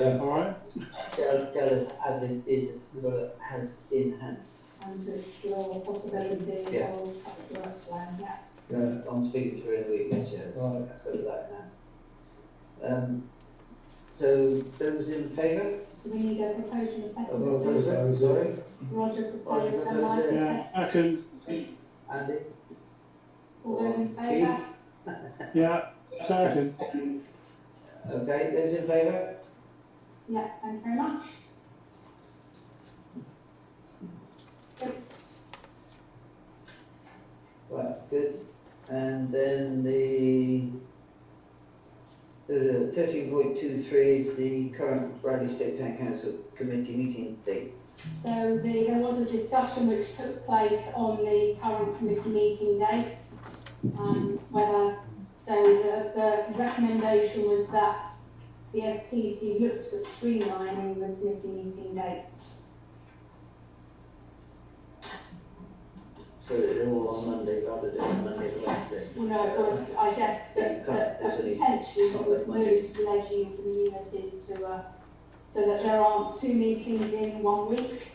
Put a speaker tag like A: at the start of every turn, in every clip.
A: All right.
B: tell, tell us as it is, uh, hands in hand.
C: and explore possibility
B: Yeah.
C: of public works land, yeah.
A: Yeah.
B: I'm speaking to her in a week, yes, yes.
A: Right.
B: Let's go with that now. Um, so those in favour
C: Do we need a proposal and
B: of all those,
C: second? please?
B: I'm sorry,
C: Roger proposed and
B: proposed,
C: Mike
A: Yeah,
C: second.
A: I can,
B: Andy?
C: All those in
B: Keith?
C: favour?
A: yeah, second,
B: Okay, those in favour?
C: Yeah, thank you very much.
B: Right, good. And then the thirteen point two three is the current Bradley State Town Council committee meeting date.
C: So the, there was a discussion which took place on the current committee meeting dates, um, whether, so the, the recommendation was that the STC looks at streamlining the committee meeting dates.
B: So they're all on Monday rather than Monday and Wednesday.
C: Well, no, it was, I guess, that, that that potentially it would move the leisure for the unit is to, uh, so that there aren't two meetings in one week.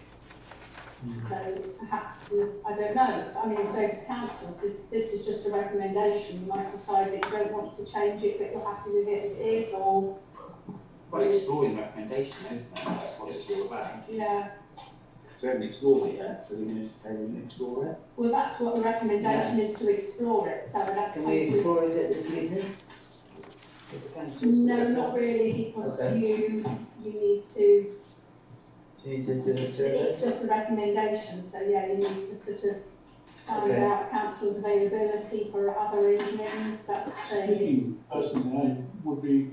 C: So perhaps, we- I don't know, It's- I mean, so to council, this, this is just a recommendation, you might decide that you don't want to change it, but you're happy with it as is, or,
D: Well, exploring recommendation, isn't it? That's what it's all about.
C: you know,
D: We haven't explored it yet, so we're going to say we can explore it.
C: well, that's what the recommendation is to explore it, so that.
B: Can we explore it at this meeting? With the council?
C: No, not really, because
B: Okay.
C: you, you need to
B: Do you need to do a survey?
C: It's just a recommendation, so yeah, you need to sort of find
B: Okay.
C: out council's availability for other evenings, that's the thing.
E: Speaking personally, I would be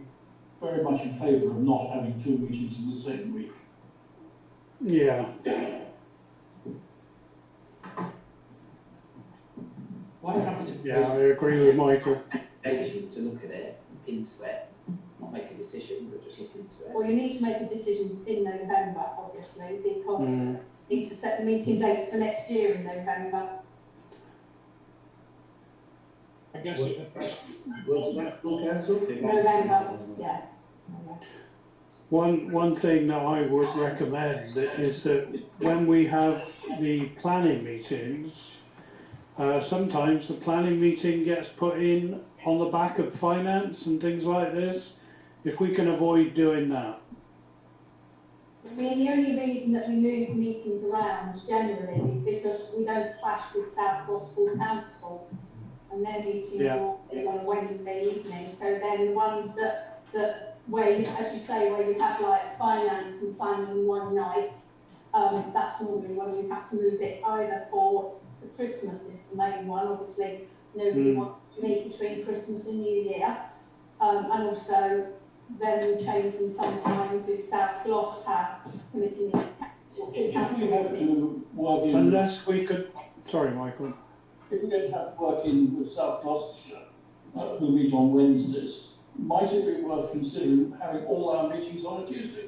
E: very much in favour of not having two meetings in the same week.
A: yeah,
D: Why don't we just
A: yeah, I agree with Michael.
D: recommendation to look at it, look into it, not make a decision, but just look into it?
C: Well, you need to make a decision in November, obviously, because
A: Mm.
C: you need to set the meeting dates for next year in November.
E: I guess
B: Will the full council?
C: November, yeah. November.
A: One, one thing that I would recommend is that when we have the planning meetings, uh, sometimes the planning meeting gets put in on the back of finance and things like this. If we can avoid doing that,
C: I mean, the only reason that we move meetings around generally is because we don't clash with South Gospel Council and their meeting is
A: Yeah.
C: on a Wednesday evening, so then the ones that, that, where, you- as you say, where you have like finance and plans in one night, um, that's normally when we have to move it either for, for Christmas is the main one, obviously, nobody
A: Mm.
C: wants to meet between Christmas and New Year. Um, and also, then we change them sometimes if South Gloss have committee meeting.
E: If we have to work in,
A: unless we could, sorry, Michael.
E: if we're going to have to work in with South Gloucestershire, uh, who meet on Wednesdays, might it be worth considering having all our meetings on a Tuesday?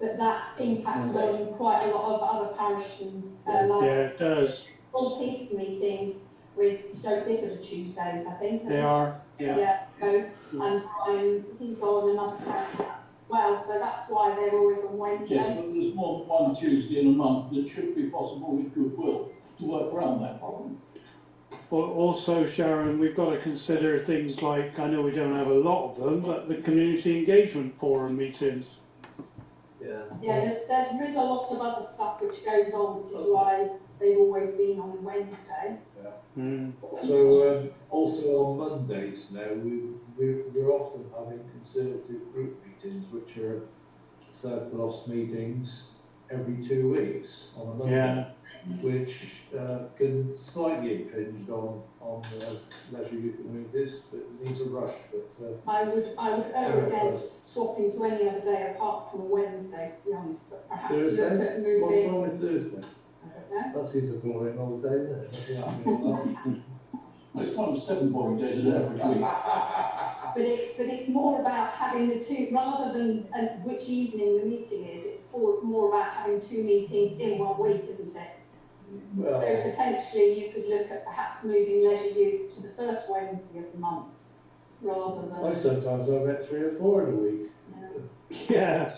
C: But that impacts on quite a lot of other parish and, uh,
A: Yeah,
C: like,
A: it does.
C: all peace meetings with Stoke Clifford are Tuesdays, I think.
A: They are, yeah.
C: so, and Brian, he's on another town as well, so that's why they're always on
E: Yes,
C: Wednesdays.
E: but there's more than one Tuesday in a month that should be possible with goodwill to work around that problem.
A: Al- Also, Sharon, we've got to consider things like, I know we don't have a lot of them, but the community engagement forum meetings.
B: Yeah.
C: Yeah, there's, there's, there is a lot of other stuff which goes on, which is why they've always been on Wednesday.
A: Mm.
F: So, um, also on Mondays now, we, we, we're often having Conservative group meetings, which are South Gloss meetings every two weeks on a Monday,
A: Yeah,
F: which, uh, can slightly impinge on, on, uh, leisure youth communities, but it needs a rush, but, uh,
C: I would, I would err against swapping to any other day apart from Wednesday, to be honest, but perhaps look at
F: Thursday, what's
C: moving,
F: wrong with Thursday?
C: I don't know.
F: That seems a boring old day, isn't it? Nothing happening on that.
E: It's one of seven boring days in every week.
C: But it's, but it's more about having the two, rather than uh, which evening the meeting is, it's for, more about having two meetings in one week, isn't it? So
F: Well,
C: potentially you could look at perhaps moving leisure use to the first Wednesday of the month. rather than.
F: I sometimes I've had three or four in a week.
A: Yeah.